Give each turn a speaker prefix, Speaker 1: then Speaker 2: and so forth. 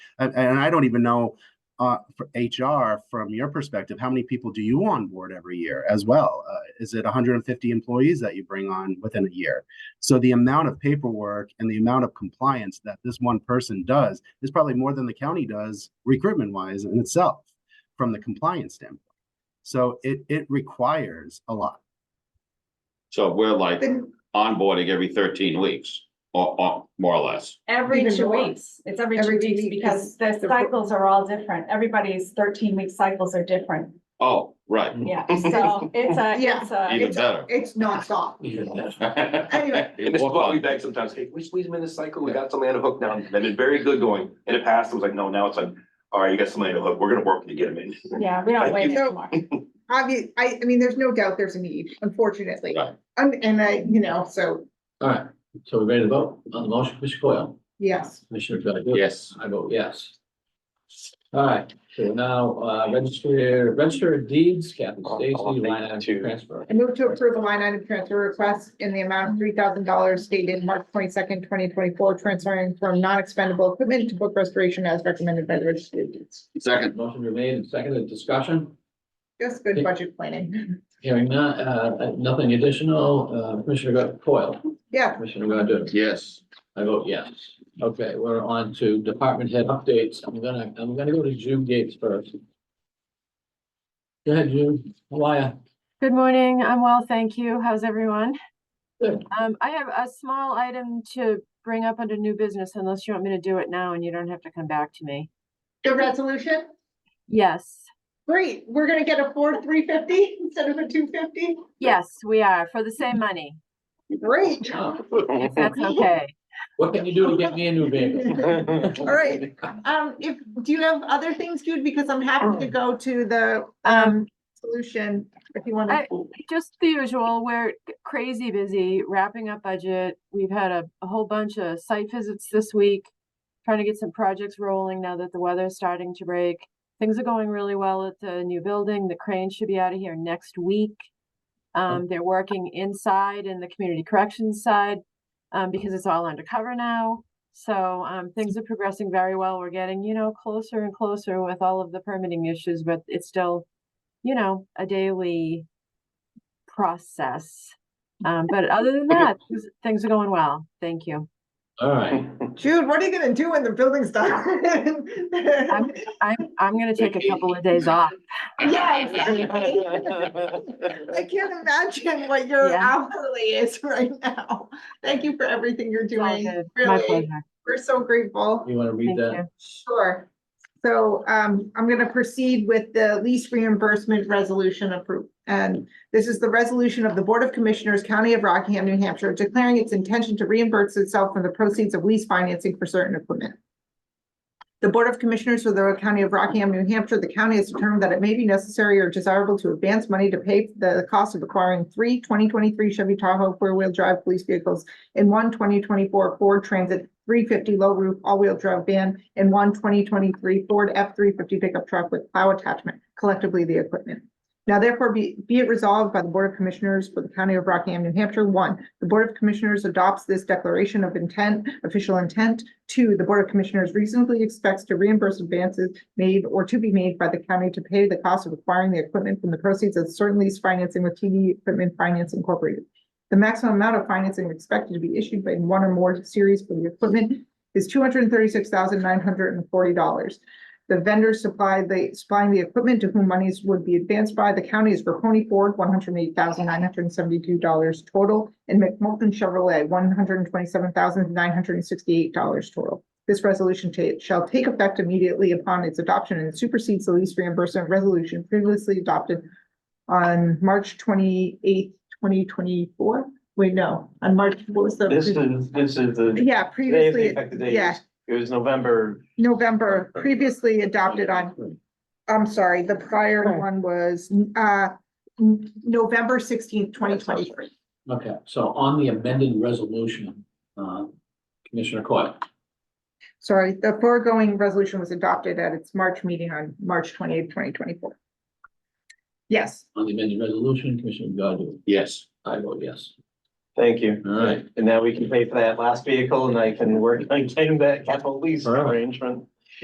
Speaker 1: and, and I don't even know uh, for HR from your perspective, how many people do you onboard every year as well? Uh, is it 150 employees that you bring on within a year? So the amount of paperwork and the amount of compliance that this one person does is probably more than the county does recruitment wise in itself from the compliance standpoint. So it it requires a lot.
Speaker 2: So we're like
Speaker 3: Then-
Speaker 2: onboarding every thirteen weeks, or, or more or less.
Speaker 4: Every
Speaker 3: Even
Speaker 4: two
Speaker 3: more.
Speaker 4: weeks, it's every
Speaker 3: Every
Speaker 4: two
Speaker 3: week,
Speaker 4: weeks because the
Speaker 3: the-
Speaker 4: cycles are all different. Everybody's thirteen week cycles are different.
Speaker 2: Oh, right,
Speaker 4: Yeah, so it's a,
Speaker 3: Yeah.
Speaker 4: Uh, it's a,
Speaker 2: even better.
Speaker 3: It's nonstop. Anyway.
Speaker 2: It
Speaker 5: And this is what
Speaker 2: was
Speaker 5: we
Speaker 2: fun.
Speaker 5: beg sometimes, hey, we squeeze them in this cycle, we got somebody on the hook now, they've been very good going, in the past, it was like, no, now it's like, all right, you got somebody on the hook, we're gonna work to get them in.
Speaker 4: yeah, we don't
Speaker 5: Thank
Speaker 4: wait
Speaker 3: you.
Speaker 4: anymore.
Speaker 3: Obvi- I, I mean, there's no doubt there's a need, unfortunately.
Speaker 2: Right.
Speaker 3: And, and I, you know, so,
Speaker 6: All right, so we're ready to vote on the motion, Commissioner Coyle,
Speaker 3: yes.
Speaker 6: Commissioner Godu?
Speaker 2: Yes,
Speaker 6: I vote yes. All right, so now, uh, register, register of deeds, Captain Stacy, line item transfer.
Speaker 3: I move to approve a line item transfer request in the amount of three thousand dollars stated March twenty-second, twenty twenty-four, transferring from non-expendable equipment to book restoration as recommended by the registry of deeds.
Speaker 2: second,
Speaker 6: Motion remained and seconded, discussion,
Speaker 3: Just good budget planning.
Speaker 6: hearing none, uh, nothing additional, uh, Commissioner Coyle,
Speaker 3: Yeah,
Speaker 6: Commissioner Godu?
Speaker 2: yes,
Speaker 6: I vote yes. Okay, we're on to department head updates. I'm gonna, I'm gonna go to June Gates first. Go ahead, June. How are ya?
Speaker 7: Good morning. I'm well, thank you. How's everyone?
Speaker 6: Good.
Speaker 7: Um, I have a small item to bring up under new business unless you want me to do it now and you don't have to come back to me.
Speaker 3: the resolution,
Speaker 7: Yes,
Speaker 3: great, we're gonna get a Ford three fifty instead of a two fifty,
Speaker 7: yes, we are for the same money,
Speaker 3: great.
Speaker 7: if that's okay.
Speaker 6: What can you do to get me a new vehicle?
Speaker 3: All right, um, if, do you have other things, Jude, because I'm happy
Speaker 7: Oh.
Speaker 3: to go to the, um, solution, if you wanna.
Speaker 7: I- Just the usual, we're crazy busy wrapping up budget. We've had a, a whole bunch of site visits this week. Trying to get some projects rolling now that the weather's starting to break. Things are going really well at the new building. The crane should be out of here next week. Um, they're working inside in the community corrections side, um, because it's all undercover now. So, um, things are progressing very well. We're getting, you know, closer and closer with all of the permitting issues, but it's still, you know, a daily process. Um, but other than that, things- things are going well. Thank you.
Speaker 6: All right,
Speaker 3: Jude, what are you gonna do when the building's done?
Speaker 7: I'm, I'm gonna take a couple of days off.
Speaker 3: Yeah, exactly. I can't imagine what your
Speaker 7: Yeah.
Speaker 3: hourly is right now. Thank you for everything you're
Speaker 7: It's all
Speaker 3: doing.
Speaker 7: good. My
Speaker 3: Really,
Speaker 7: pleasure.
Speaker 3: we're so grateful.
Speaker 6: you wanna read
Speaker 7: Thank
Speaker 6: that?
Speaker 7: you.
Speaker 3: Sure. So um, I'm gonna proceed with the lease reimbursement resolution approved. And this is the resolution of the Board of Commissioners, County of Rockingham, New Hampshire, declaring its intention to reimburse itself from the proceeds of lease financing for certain equipment. The Board of Commissioners for the County of Rockingham, New Hampshire, the county has determined that it may be necessary or desirable to advance money to pay the cost of acquiring three 2023 Chevy Tahoe four-wheel drive police vehicles and one 2024 Ford Transit three fifty low roof all-wheel drive van and one 2023 Ford F three fifty pickup truck with plow attachment, collectively the equipment. Now therefore be, be it resolved by the Board of Commissioners for the County of Rockingham, New Hampshire, one, the Board of Commissioners adopts this declaration of intent, official intent. Two, the Board of Commissioners reasonably expects to reimburse advances made or to be made by the county to pay the cost of acquiring the equipment from the proceeds of certain lease financing with TD Equipment Finance Incorporated. The maximum amount of financing expected to be issued by one or more series for the equipment is two hundred and thirty-six thousand nine hundred and forty dollars. The vendor supplied the, supplying the equipment to whom monies would be advanced by the county is Verhoney Ford, one hundred and eight thousand nine hundred and seventy-two dollars total, and McMullen Chevrolet, one hundred and twenty-seven thousand nine hundred and sixty-eight dollars total. This resolution ta- shall take effect immediately upon its adoption and supersedes the lease reimbursement resolution previously adopted on March twenty-eighth, twenty twenty-four. Wait, no, on March, what was the?
Speaker 8: This is, this is the,
Speaker 3: Yeah,
Speaker 8: they have
Speaker 3: previously.
Speaker 8: the effective date.
Speaker 3: yeah.
Speaker 8: It was November,
Speaker 3: November previously adopted on, I'm sorry, the prior one was, uh, N- November sixteenth, twenty twenty-three.
Speaker 6: Okay, so on the amended resolution, uh, Commissioner Coyle,
Speaker 3: Sorry, the foregoing resolution was adopted at its March meeting on March twenty-eighth, twenty twenty-four. Yes,
Speaker 6: on the amended resolution, Commissioner Godu,
Speaker 2: yes,
Speaker 6: I vote yes.
Speaker 8: thank you.
Speaker 6: All right.
Speaker 8: And now we can pay for that last vehicle and I can work on getting that capital lease
Speaker 6: All right.
Speaker 8: arrangement.